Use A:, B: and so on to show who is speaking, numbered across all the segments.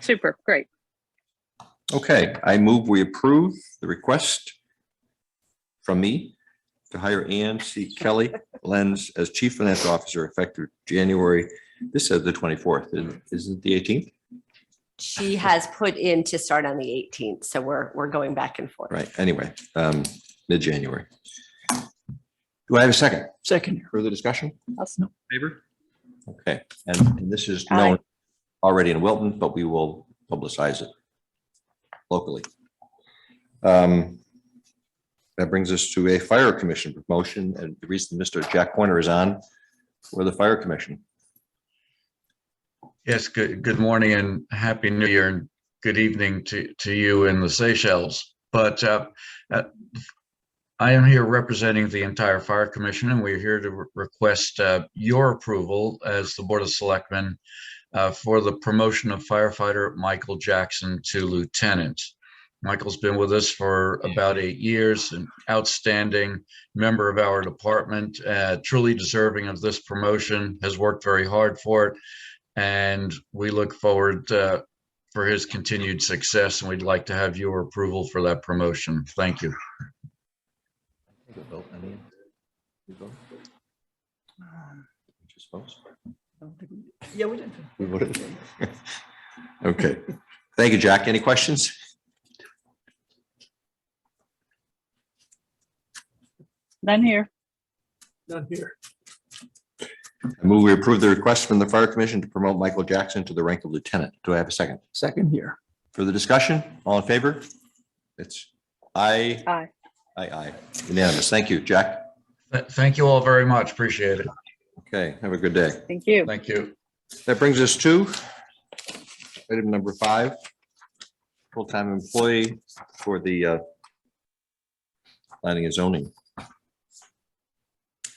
A: Super, great.
B: Okay, I move we approve the request from me to hire Ann C. Kelly Lenz as Chief Financial Officer effective January, this says the twenty-fourth, isn't it the eighteenth?
C: She has put in to start on the eighteenth, so we're, we're going back and forth.
B: Right, anyway, um, mid-January. Do I have a second?
D: Second.
B: Further discussion?
D: No.
B: Favor? Okay, and and this is known already in Wilton, but we will publicize it locally. Um, That brings us to a fire commission promotion, and the reason Mr. Jack Pointer is on for the fire commission.
E: Yes, good, good morning and happy new year and good evening to, to you in the Seychelles. But uh, uh, I am here representing the entire Fire Commission and we're here to re- request uh, your approval as the Board of Selectmen uh, for the promotion of firefighter Michael Jackson to lieutenant. Michael's been with us for about eight years, an outstanding member of our department, uh, truly deserving of this promotion, has worked very hard for it. And we look forward uh, for his continued success, and we'd like to have your approval for that promotion. Thank you.
D: Yeah, we did.
B: We voted. Okay, thank you, Jack. Any questions?
A: None here.
D: Not here.
B: I move we approve the request from the fire commission to promote Michael Jackson to the rank of lieutenant. Do I have a second?
D: Second here.
B: Further discussion? All in favor? It's aye.
A: Aye.
B: Aye, aye. Unanimous. Thank you, Jack.
E: Th- Thank you all very much. Appreciate it.
B: Okay, have a good day.
A: Thank you.
E: Thank you.
B: That brings us to item number five, full-time employee for the uh, planning and zoning.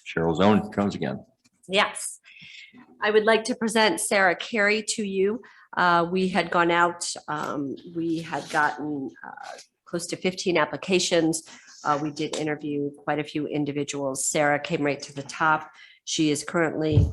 B: Cheryl Zone comes again.
C: Yes. I would like to present Sarah Carey to you. Uh, We had gone out, um, we had gotten uh, close to 15 applications. Uh, We did interview quite a few individuals. Sarah came right to the top. She is currently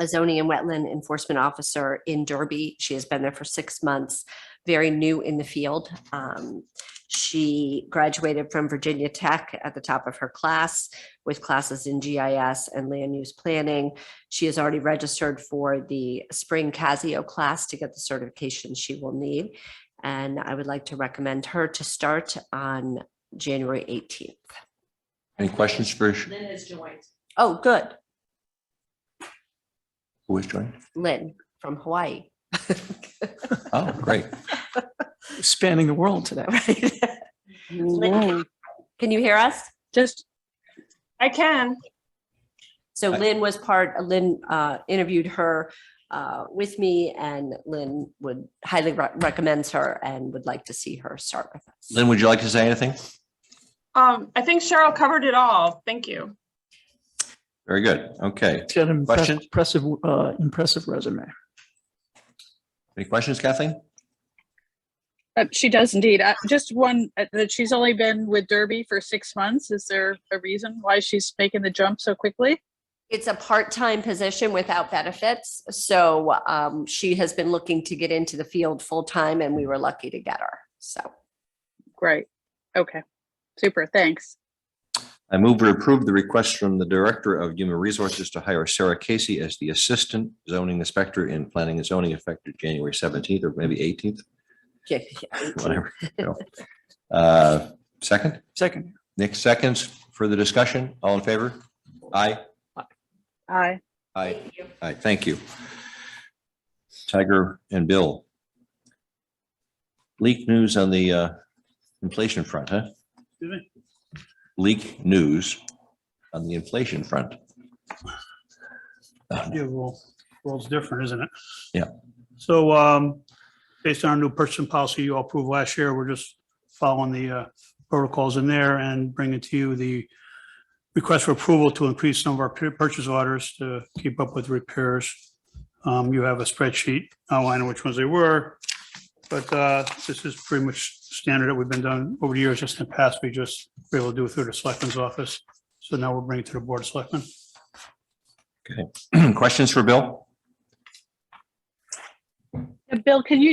C: a zoning and wetland enforcement officer in Derby. She has been there for six months, very new in the field. Um, She graduated from Virginia Tech at the top of her class with classes in GIS and land use planning. She is already registered for the spring Casio class to get the certification she will need. And I would like to recommend her to start on January 18th.
B: Any questions for Sh-
C: Lynn has joined. Oh, good.
B: who is joining?
C: Lynn from Hawaii.
B: Oh, great.
D: Spanning the world today.
C: Right.
A: Whoa.
C: Can you hear us?
A: Just,
F: I can.
C: So
B: Hi.
C: Lynn was part, Lynn uh, interviewed her uh, with me and Lynn would highly re- recommends her and would like to see her start with us.
B: Lynn, would you like to say anything?
F: Um, I think Cheryl covered it all. Thank you.
B: Very good. Okay.
D: It's got an impress-
B: Questions?
D: impressive, uh, impressive resume.
B: Any questions, Kathleen?
A: uh, she does indeed. Uh, Just one, uh, that she's only been with Derby for six months. Is there a reason why she's making the jump so quickly?
C: It's a part-time position without benefits, so um, she has been looking to get into the field full-time and we were lucky to get her. So
A: Great. Okay. Super, thanks.
B: I move to approve the request from the Director of Human Resources to hire Sarah Casey as the Assistant Zoning Inspector in Planning and Zoning effective January seventeenth or maybe eighteenth,
C: yeah,
B: whatever. you know. Uh, Second,
D: Second.
B: Nick seconds, further discussion, all in favor? Aye.
A: Aye.
B: Aye. Aye, thank you. Tiger and Bill. Leak news on the uh, inflation front, huh? Leak news on the inflation front.
G: Yeah, well, world's different, isn't it?
B: Yeah.
G: So um, based on our new purchasing policy you all approved last year, we're just following the uh, protocols in there and bringing to you the request for approval to increase some of our pur- purchase orders to keep up with repairs. Um, You have a spreadsheet outlining which ones they were, but uh, this is pretty much standard that we've been done over the years, just in the past, we just were able to do it through the selectmen's office. So now we'll bring it to the board of selectmen.
B: Questions for Bill?
A: Uh, Bill, can you